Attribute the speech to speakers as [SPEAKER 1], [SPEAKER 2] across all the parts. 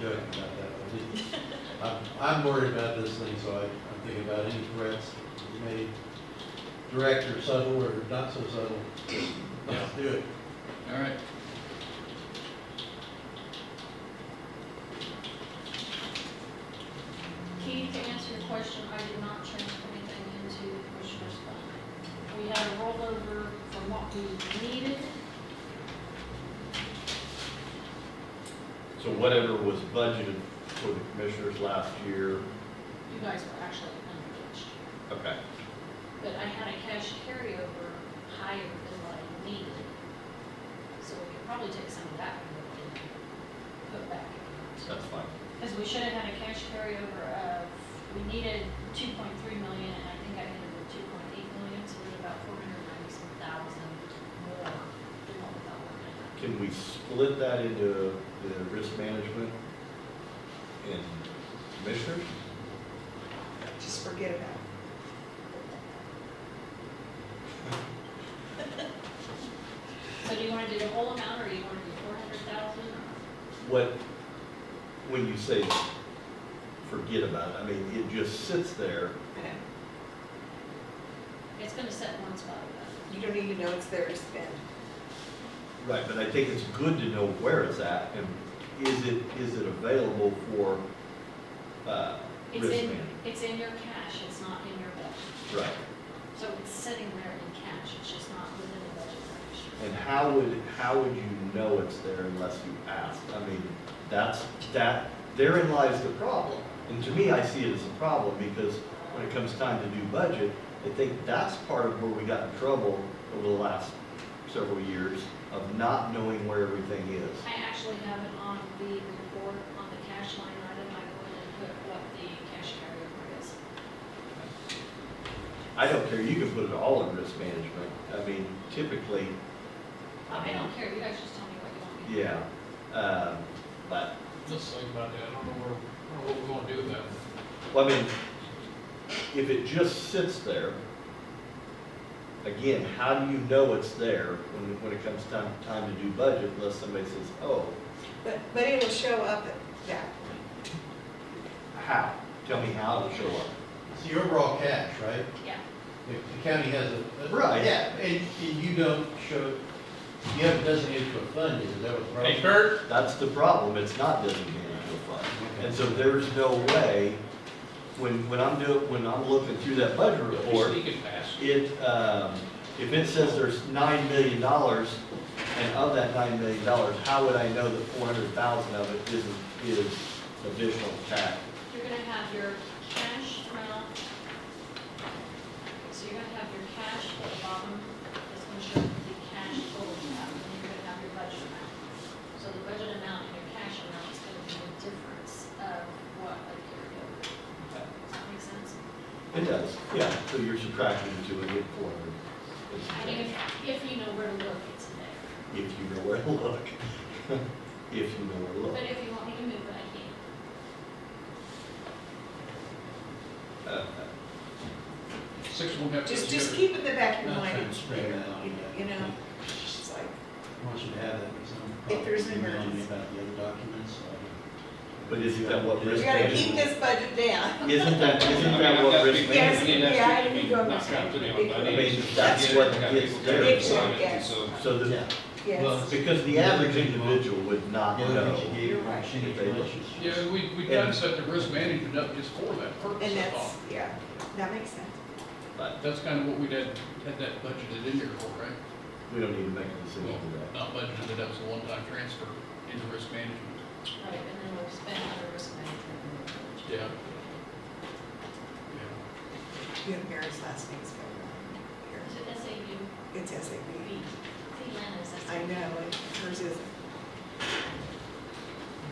[SPEAKER 1] good about that. one. Just- I'm- I'm worried about this thing, so I, I'm thinking about any threats that you may direct or subtle or not so subtle. Let's do it.
[SPEAKER 2] All right.
[SPEAKER 3] Keith, to answer your question, I did not transfer anything into the commissioner's fund. We had a rollover from what we needed,
[SPEAKER 4] So whatever was budgeted for the commissioners last year,
[SPEAKER 3] you guys were actually under last year.
[SPEAKER 4] okay,
[SPEAKER 3] But I had a cash carryover higher than what I needed. So we could probably take some of that and put back in.
[SPEAKER 4] that's fine.
[SPEAKER 3] Because we should have had a cash carryover of, we needed two point three million, and I think I ended with two point eight million, so we're about four hundred ninety-some thousand more than what we thought we were gonna have.
[SPEAKER 4] Can we split that into the risk management and commissioners?
[SPEAKER 5] Just forget about it.
[SPEAKER 3] So do you wanna do the whole amount, or you wanna do four hundred thousand, or?
[SPEAKER 4] What, when you say forget about it, I mean, it just sits there.
[SPEAKER 5] I know.
[SPEAKER 3] It's gonna set one spot about
[SPEAKER 5] You don't need to know it's there to spend.
[SPEAKER 4] Right, but I think it's good to know where it's at and is it, is it available for, uh,
[SPEAKER 3] it.
[SPEAKER 4] risk
[SPEAKER 3] It's in,
[SPEAKER 4] management?
[SPEAKER 3] it's in your cash, it's not in your budget.
[SPEAKER 4] Right.
[SPEAKER 3] So it's sitting there in cash, it's just not within the budget range.
[SPEAKER 4] And how would, how would you know it's there unless you asked? I mean, that's, that, therein lies the problem. And to me, I see it as a problem because when it comes time to do budget, I think that's part of where we got in trouble over the last several years of not knowing where everything is.
[SPEAKER 3] I actually have it on the report, on the cash line item, I go in and put what the cash carryover is.
[SPEAKER 4] I don't care, you can put it all in risk management. I mean, typically,
[SPEAKER 3] I don't care, you guys just tell me what you want me to do.
[SPEAKER 4] yeah, um, but
[SPEAKER 2] Let's think about that. I don't know where, I don't know what we're gonna do with that.
[SPEAKER 4] Well, I mean, if it just sits there, again, how do you know it's there when, when it comes time, time to do budget unless somebody says, oh,
[SPEAKER 5] But, but it will show up at that point.
[SPEAKER 4] how? Tell me how it'll show up.
[SPEAKER 1] It's the overall cash, right?
[SPEAKER 3] Yeah,
[SPEAKER 1] If the county has a. a-
[SPEAKER 4] Right.
[SPEAKER 1] Yeah, and, and you don't show, you haven't designated to a fund, yet, is that what the problem?
[SPEAKER 2] Hey Kurt,
[SPEAKER 4] That's the problem, it's not designated to a fund. And so there's no way, when, when I'm doing, when I'm looking through that budget
[SPEAKER 2] you're
[SPEAKER 4] report,
[SPEAKER 2] sneaking fast.
[SPEAKER 4] it, um, if it says there's nine million dollars, and of that nine million dollars, how would I know that four hundred thousand of it is, is additional tax?
[SPEAKER 3] you're gonna have your cash amount. So you're gonna have your cash at the bottom, that's gonna show the cash total amount, and you're gonna have your budget amount. So the budget amount and your cash amount is gonna be the difference of what I carried over. Does that make sense?
[SPEAKER 4] It does, yeah, so you're subtracting the two and get
[SPEAKER 3] I
[SPEAKER 4] four
[SPEAKER 3] mean,
[SPEAKER 4] hundred.
[SPEAKER 3] if, if you know where to look, it's there.
[SPEAKER 4] If you know where to look, if you know where to look.
[SPEAKER 3] But if you want me to move it, I can.
[SPEAKER 4] Uh,
[SPEAKER 2] Six won't have to.
[SPEAKER 5] Just, just keep it in the back of your
[SPEAKER 1] Not
[SPEAKER 5] mind.
[SPEAKER 1] trying to spread that out.
[SPEAKER 5] You know, it's like,
[SPEAKER 1] uh, I want you to have that. because I'm
[SPEAKER 5] If there's an
[SPEAKER 1] probably emailing
[SPEAKER 5] emergency.
[SPEAKER 1] you About the other documents, so.
[SPEAKER 4] But isn't that what
[SPEAKER 5] we
[SPEAKER 4] risk
[SPEAKER 5] gotta
[SPEAKER 4] management?
[SPEAKER 5] keep this budget down.
[SPEAKER 4] Isn't that,
[SPEAKER 2] I mean,
[SPEAKER 4] isn't
[SPEAKER 2] I've
[SPEAKER 4] that
[SPEAKER 2] got
[SPEAKER 4] what
[SPEAKER 2] to
[SPEAKER 4] risk
[SPEAKER 2] be-
[SPEAKER 5] Yes,
[SPEAKER 4] management?
[SPEAKER 2] that's
[SPEAKER 5] yeah, I
[SPEAKER 2] to be
[SPEAKER 5] didn't go over
[SPEAKER 2] knocked out
[SPEAKER 5] that.
[SPEAKER 2] today, but
[SPEAKER 5] I
[SPEAKER 4] mean,
[SPEAKER 2] it's-
[SPEAKER 4] that's
[SPEAKER 2] it's
[SPEAKER 4] what
[SPEAKER 2] got
[SPEAKER 4] gets
[SPEAKER 2] people
[SPEAKER 4] there.
[SPEAKER 2] to sign it,
[SPEAKER 5] Yes.
[SPEAKER 2] so-
[SPEAKER 4] So the,
[SPEAKER 1] Yeah.
[SPEAKER 5] Yes.
[SPEAKER 1] Well,
[SPEAKER 4] because the average individual would
[SPEAKER 1] The
[SPEAKER 4] not
[SPEAKER 1] other
[SPEAKER 4] know.
[SPEAKER 1] things you gave,
[SPEAKER 5] You're
[SPEAKER 1] were
[SPEAKER 5] right.
[SPEAKER 1] machine
[SPEAKER 4] They-
[SPEAKER 1] relationships.
[SPEAKER 2] Yeah, we, we done set the risk management up just for that purpose,
[SPEAKER 5] And
[SPEAKER 2] I
[SPEAKER 5] that's,
[SPEAKER 2] thought.
[SPEAKER 5] yeah, that makes sense.
[SPEAKER 4] But
[SPEAKER 2] That's kind of what we did, had that budgeted in there for, right?
[SPEAKER 4] we don't need to make a decision
[SPEAKER 2] Well,
[SPEAKER 4] today.
[SPEAKER 2] not budgeted, that was a one-time transfer into risk management.
[SPEAKER 3] Right, and then we'll spend our risk management.
[SPEAKER 2] Yeah.
[SPEAKER 5] You have Mary's last name's spelled
[SPEAKER 3] Is it S A U
[SPEAKER 5] wrong here. It's S A
[SPEAKER 3] B?
[SPEAKER 5] B.
[SPEAKER 3] Cleveland is S A
[SPEAKER 5] I
[SPEAKER 3] U.
[SPEAKER 5] know, and hers isn't.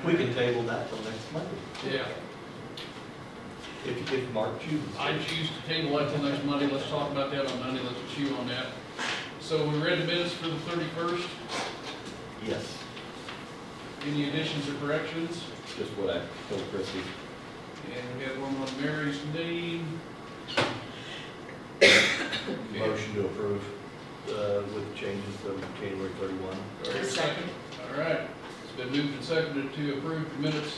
[SPEAKER 4] We can table that till next Monday,
[SPEAKER 2] Yeah, yeah.
[SPEAKER 4] if, if Mark chooses.
[SPEAKER 2] I choose to table that till next Monday, let's talk about that on Monday, let's chew on that. So we read the minutes for the thirty-first,
[SPEAKER 4] Yes,
[SPEAKER 2] any additions or corrections?
[SPEAKER 4] just what I told Christie.
[SPEAKER 2] And we had one on Mary's name. Okay.
[SPEAKER 4] Motion to approve, uh, with changes of January thirty-one.
[SPEAKER 2] All right, it's been moved and seconded to approve the minutes